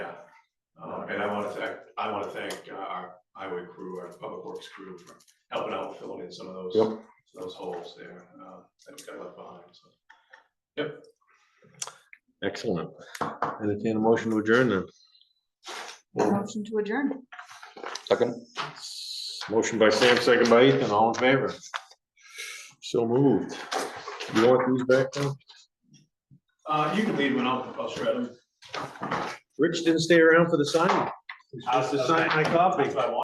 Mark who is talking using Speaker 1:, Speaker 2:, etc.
Speaker 1: Um, And I want to thank, I want to thank uh, our highway crew, our public works crew for helping out with filling in some of those.
Speaker 2: Yep.
Speaker 1: Those holes there, uh, that we got left behind, so.
Speaker 2: Excellent. Entertain a motion to adjourn then.
Speaker 3: Motion to adjourn.
Speaker 2: Second. Motion by Sam, second by Ethan, all in favor. So moved. You want these back now?
Speaker 1: Uh, you can leave one out, I'll shred them.
Speaker 2: Rich didn't stay around for the signing. He's supposed to sign my copy.
Speaker 1: If I want.